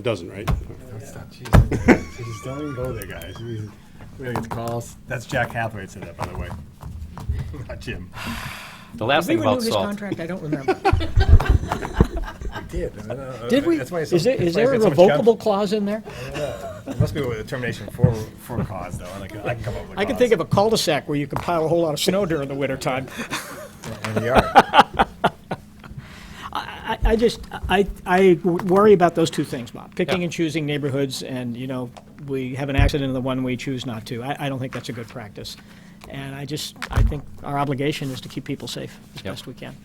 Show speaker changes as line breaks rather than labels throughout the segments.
It doesn't, right?
Stop teasing. Just don't even go there, guys. We we gotta get the calls. That's Jack Hathaway said that, by the way. Not Jim.
The last
We
thing
renewed
about
his
salt.
contract, I don't remember.
I did. I don't know.
Did we?
That's why it's
Is
so-
there, is
that's
there
why
a
it's so much conf-
revocable clause in there?
It Must be a termination for, for cause, though. and I can I can come up with a
I can
cause.
think of a cul-de-sac where you can pile a whole lot of snow during the wintertime.
And we are.
I, I just, I, I worry about those two things, Bob, picking
Yeah.
and choosing neighborhoods, and, you know, we have an accident in the one we choose not to. I, I don't think that's a good practice. And I just, I think our obligation is to keep people safe as
Yep.
best we can.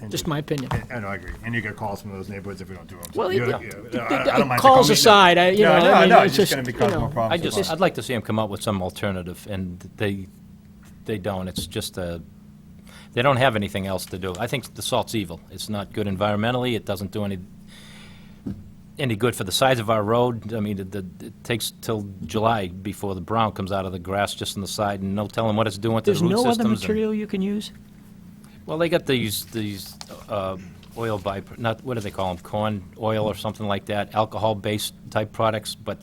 And
Just
you-
my opinion.
I know, I agree. And you get calls from those neighborhoods if we don't do them.
Well,
you
yeah.
I don't mind.
Calls aside, I- you know, I mean,
No,
it's
it's just
just,
gonna be
you
causing more
know,
problems.
I
than
just,
cause.
I'd like to see them come up with some alternative, and they, they don't. It's just a, they don't have anything else to do. I think the salt's evil. It's not good environmentally. It doesn't do any, any good for the size of our road. I mean, it, the- it takes till July before the brown comes out of the grass just on the side, and no telling what it's doing to the root systems.
There's no other
and-
material you can use?
Well, they got these, these uh, oil by, not, what do they call them, corn oil or something like that, alcohol-based type products, but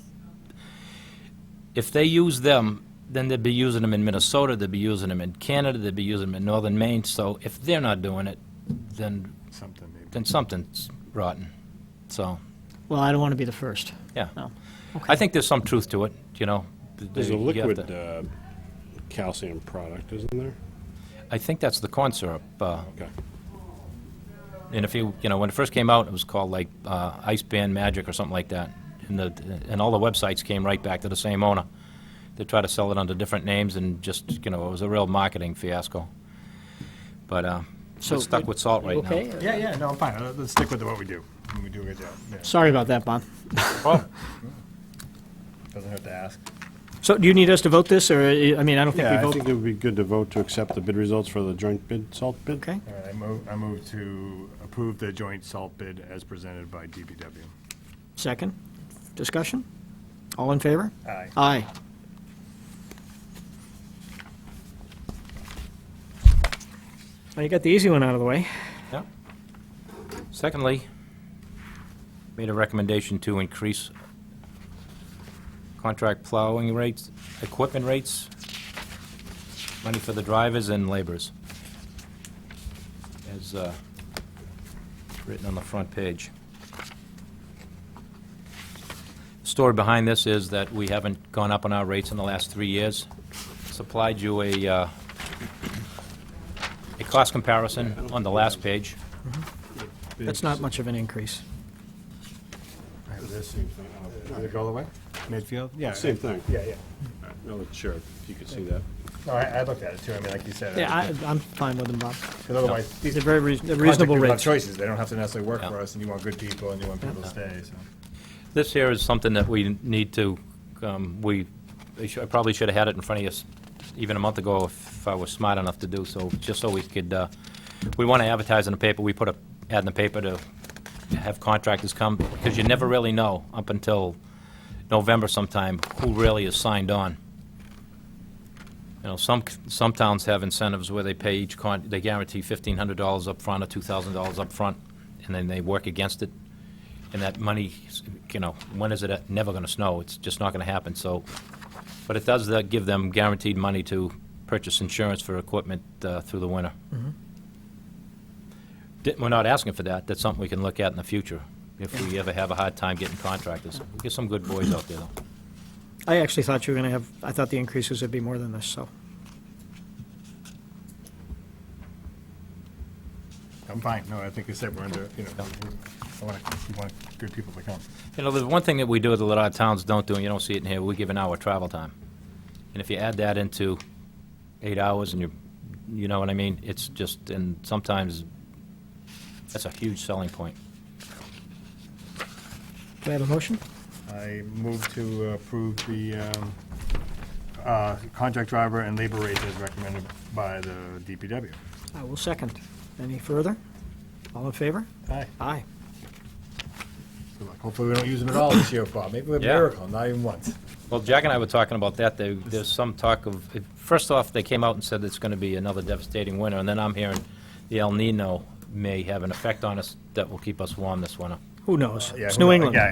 if they use them, then they'd be using them in Minnesota, they'd be using them in Canada, they'd be using them in northern Maine, so if they're not doing it, then,
Something maybe.
then something's rotten. So,
Well, I don't want to be the first.
yeah.
No.
I think there's some truth to it, you know. th-
There's a
you have to-
liquid uh, calcium product, isn't there?
I think that's the corn syrup. uh,
Okay.
And if you, you know, when it first came out, it was called like uh, Ice Band Magic or something like that. And the, and all the websites came right back to the same owner. They tried to sell it under different names and just, you know, it was a real marketing fiasco. But uh,
So,
we're stuck with salt right now.
Okay?
Yeah, yeah, no, I'm fine. Uh, Let's stick with what we do. And We do a good job. Yeah.
Sorry about that, Bob.
Doesn't hurt to ask.
So do you need us to vote this, or, uh, I mean, I don't think
Yeah,
we
I
I
vote.
think it would be good to vote to accept the bid results for the joint bid, salt bid.
Okay,
All right, I move, I move to approve the joint salt bid as presented by DPW.
second. Discussion? All in favor?
Aye.
Aye. Well, you got the easy one out of the way.
Yeah. Secondly, made a recommendation to increase contract plowing rates, equipment rates, money for the drivers and laborers, as uh, written on the front page. Story behind this is that we haven't gone up on our rates in the last three years. Supplied you a uh, a cost comparison on the last page.
That's not much of an increase.
Same thing.
Did it go all the way? Midfield? Yeah.
Same thing.
Yeah, yeah.
I'll let Sheriff, if you could see that.
No, I, I looked at it too. I mean, like you said.
Yeah, I, I'm fine with them, Bob.
Because otherwise, these
They're very reas- they're
contract
reasonable
people have
rates.
choices. They don't have to necessarily work
Yeah.
for us and you want good people and you want people to stay, so.
This here is something that we need to, um, we, I should- I probably should have had it in front of you s- even a month ago if I was smart enough to do so, just so we could, uh, we want to advertise in the paper, we put a ad in the paper to have contractors come, because you never really know up until November sometime who really is signed on. You know, some, c- some towns have incentives where they pay each con, they guarantee fifteen hundred dollars up front or two thousand dollars up front, and then they work against it. And that money, you know, when is it never gonna snow? It's just not gonna happen, so. But it does uh, give them guaranteed money to purchase insurance for equipment uh, through the winter. Di- We're not asking for that. That's something we can look at in the future, if we ever have a hard time getting contractors. We get some good boys out there, though.
I actually thought you were gonna have, I thought the increases would be more than this, so.
I'm fine. No, I think you said we're under, you know, I want, you want good people to come.
You know, the one thing that we do that a lot of towns don't do, and you don't see it in here, we give an hour travel time. And if you add that into eight hours and you, you know what I mean, it's just, and sometimes, that's a huge selling point.
Do I have a motion?
I move to approve the um, uh, contract driver and labor rates as recommended by the DPW.
I will second. Any further? All in favor?
Aye.
Aye.
Good luck. Hopefully, we don't use them at all this year, Bob. Maybe we have a
Yeah.
miracle, not even once.
Well, Jack and I were talking about that, There- there's some talk of, first off, they came out and said it's gonna be another devastating winter, and then I'm hearing the El Nino may have an effect on us that will keep us warm this winter.
Who- Who knows?
Uh, Yeah,
It's
who
New
knows?
England.
Yeah,